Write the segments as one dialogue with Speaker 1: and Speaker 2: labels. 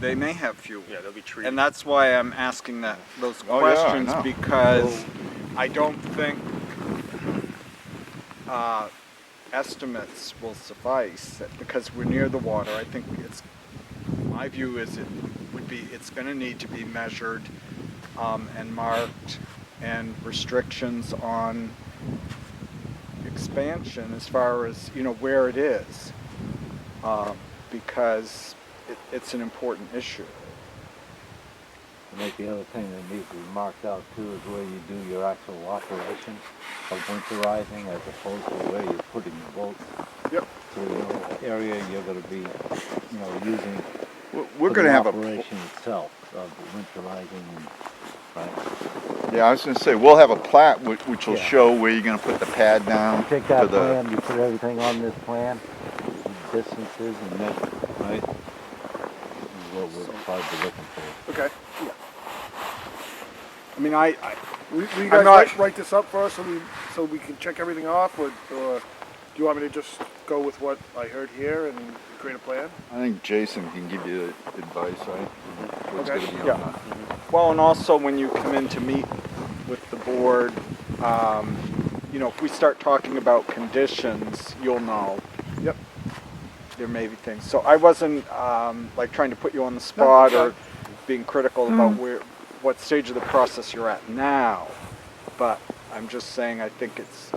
Speaker 1: they may have fuel.
Speaker 2: Yeah, they'll be treated.
Speaker 1: And that's why I'm asking that, those
Speaker 3: Oh, yeah, I
Speaker 1: questions,
Speaker 3: know.
Speaker 1: because I don't think, uh, estimates will suffice, because we're near the water, I think it's, my view is it would be, it's gonna need to be measured, um, and marked, and restrictions on expansion as far as, you know, where it is, um, because it, it's an important issue.
Speaker 4: I think the other thing that needs to be marked out too is where you do your actual operation of winterizing as opposed to where you're putting the boats.
Speaker 1: Yep.
Speaker 4: So you know what area you're gonna be, you know, using
Speaker 3: We're-
Speaker 4: for
Speaker 3: We're
Speaker 4: the
Speaker 3: gonna have a,
Speaker 4: operation itself of winterizing and, right?
Speaker 3: yeah, I was gonna say, we'll have a plat which, which will
Speaker 4: Yeah.
Speaker 3: show where you're gonna put the pad down.
Speaker 4: Take
Speaker 3: to
Speaker 4: that
Speaker 3: Um, the-
Speaker 4: plan, you put everything on this plan, distances and measure, right? This is What we're probably looking for.
Speaker 5: Okay.
Speaker 1: I mean, I, I
Speaker 5: Will, will you
Speaker 1: I'm
Speaker 5: guys
Speaker 1: not-
Speaker 5: write, write this up for us so we, so we can check everything off, or, or do you want me to just go with what I heard here and create a plan?
Speaker 3: I think Jason can give you the advice, right? What's
Speaker 5: Okay.
Speaker 3: gonna be on
Speaker 1: Yeah.
Speaker 3: that.
Speaker 1: well, and also when you come in to meet with the board, um, you know, if we start talking about conditions, you'll know
Speaker 5: Yep.
Speaker 1: there may be things. So I wasn't um, like trying to put you on the spot or being critical about where, what stage of the process you're at now. But I'm just saying I think it's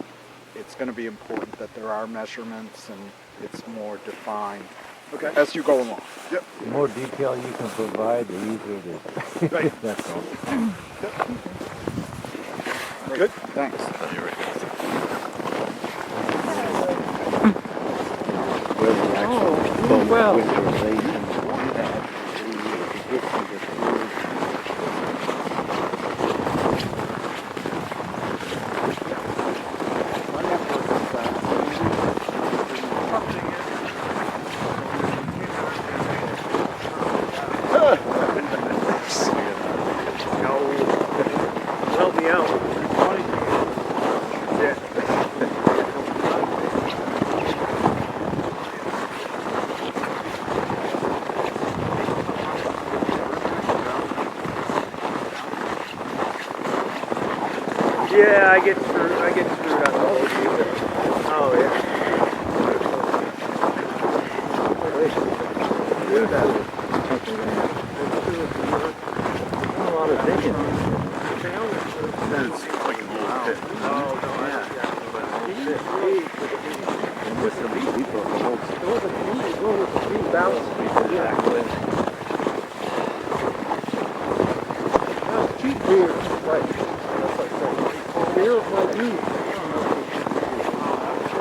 Speaker 1: it's going to be important that there are measurements and it's more defined
Speaker 5: Okay.
Speaker 1: as you go along.
Speaker 4: The more detail you can provide, the easier it is.
Speaker 5: Right.
Speaker 4: That's all.
Speaker 1: Good. Thanks.
Speaker 6: Oh,
Speaker 4: Where the actual boat
Speaker 7: well.
Speaker 4: winterization one that we need to get to the field.
Speaker 2: Help me out. Yeah, I get screwed. I get screwed up. Oh yeah.
Speaker 4: A lot of digging.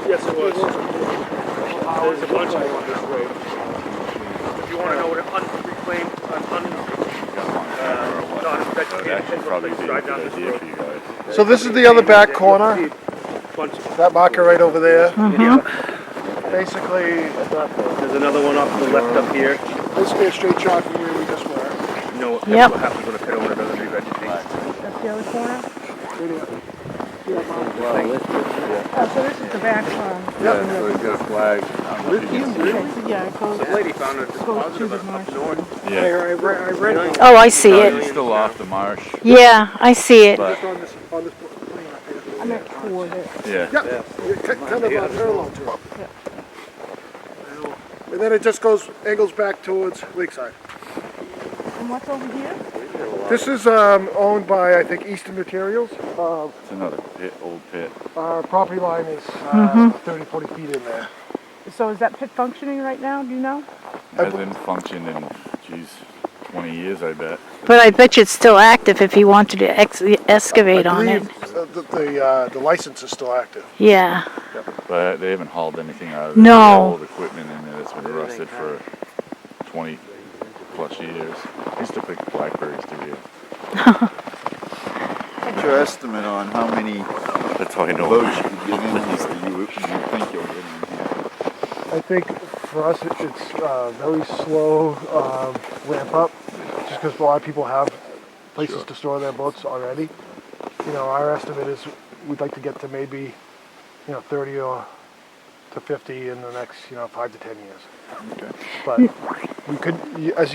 Speaker 2: Yes, it was. There's a bunch of them on this way. If you want to know what an unreclaimed, an un, uh, non-vegetated
Speaker 6: probably be
Speaker 2: place,
Speaker 6: a
Speaker 2: drive down
Speaker 6: good
Speaker 2: this
Speaker 6: idea
Speaker 2: road.
Speaker 6: for you guys.
Speaker 5: So this is the other back corner,
Speaker 2: Bunch of them.
Speaker 5: that marker right over there. Mm-hmm.
Speaker 2: Yeah.
Speaker 5: Basically,
Speaker 2: There's another one off to the left up here.
Speaker 5: basically a straight shot from where we just were.
Speaker 2: You know what
Speaker 7: Yep.
Speaker 2: what happens when a pit owner doesn't revegetate.
Speaker 7: That's the other corner?
Speaker 3: Well, this
Speaker 7: Oh, so this is the back corner.
Speaker 3: Yeah, so you got a flag.
Speaker 7: Yeah, it goes,
Speaker 2: This lady found a
Speaker 7: goes
Speaker 2: deposit
Speaker 7: through
Speaker 2: of
Speaker 7: the
Speaker 2: it up
Speaker 7: marsh.
Speaker 2: north.
Speaker 6: Yeah,
Speaker 5: I read, I read
Speaker 7: Oh, I see it.
Speaker 6: it's still off the marsh,
Speaker 7: Yeah, I see it.
Speaker 6: but
Speaker 5: on this, on this plane up here.
Speaker 7: I meant toward it.
Speaker 6: yeah.
Speaker 5: Kind of uh, parallel to it. And then it just goes, angles back towards Lakeside.
Speaker 7: And what's over here?
Speaker 5: This is um, owned by, I think, Eastern Materials. Uh,
Speaker 6: It's another pit, old pit.
Speaker 5: Our property line is
Speaker 8: Mm-hmm.
Speaker 5: uh, 30, 40 feet in there.
Speaker 7: So is that pit functioning right now? Do you know?
Speaker 6: Hasn't functioned in, geez, 20 years, I bet.
Speaker 8: But I bet you it's still active if he wanted to ex- excavate on it.
Speaker 5: uh, that the, uh, the license is still active.
Speaker 8: Yeah.
Speaker 6: But they haven't hauled anything out of it. They
Speaker 8: No.
Speaker 6: got Old equipment in there that's been rusted for 20 plus years. Used to pick blackberries to real.
Speaker 3: What's your estimate on how many
Speaker 6: That's all I
Speaker 3: boats you could get in here? You, would- you think you'll get in here?
Speaker 5: I think for us, it- it's uh, very slow um, ramp up, just because a lot of people have places to store their boats already. You know, our estimate is we'd like to get to maybe, you know, 30 or to 50 in the next, you know, five to 10 years. But we could, y- as